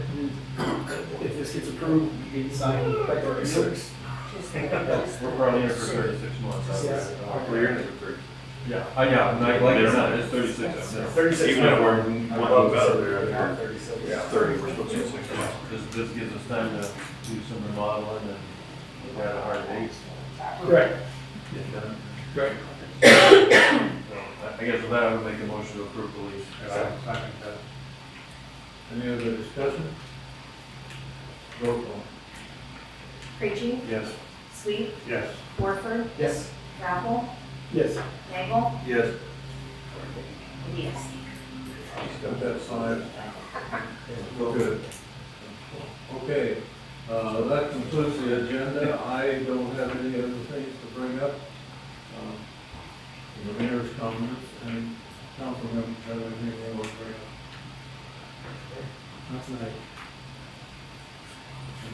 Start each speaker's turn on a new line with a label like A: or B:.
A: it's, it's approved, you can sign by thirty-six.
B: We're probably in it for thirty-six months. I
A: Yes.
B: would-
C: We're in it for thirty.
B: Yeah, I, yeah, and I- like I said, it's thirty-six. yeah.
A: Thirty-six.
C: Even if we're one move out of there,
A: Yeah,
C: yeah.
A: Thirty-six.
C: Thirty, we're supposed to be six months.
B: This, this gives us time to do some remodeling and look at a hard date.
A: Correct,
B: get done.
A: correct.
B: So I- I guess with that, I would make a motion to approve the lease.
D: Any other discussion? Roll call.
E: Preaching,
B: Yes.
E: Sweet,
D: Yes.
E: Warford,
A: Yes.
E: Rappel,
A: Yes.
E: Nagel,
C: Yes.
E: and yes.
D: Just got that signed. Well, good. Okay, uh, that concludes the agenda. I don't have any other things to bring up. Um, The mayor's comments and council members have anything they want to bring up.
A: Not tonight.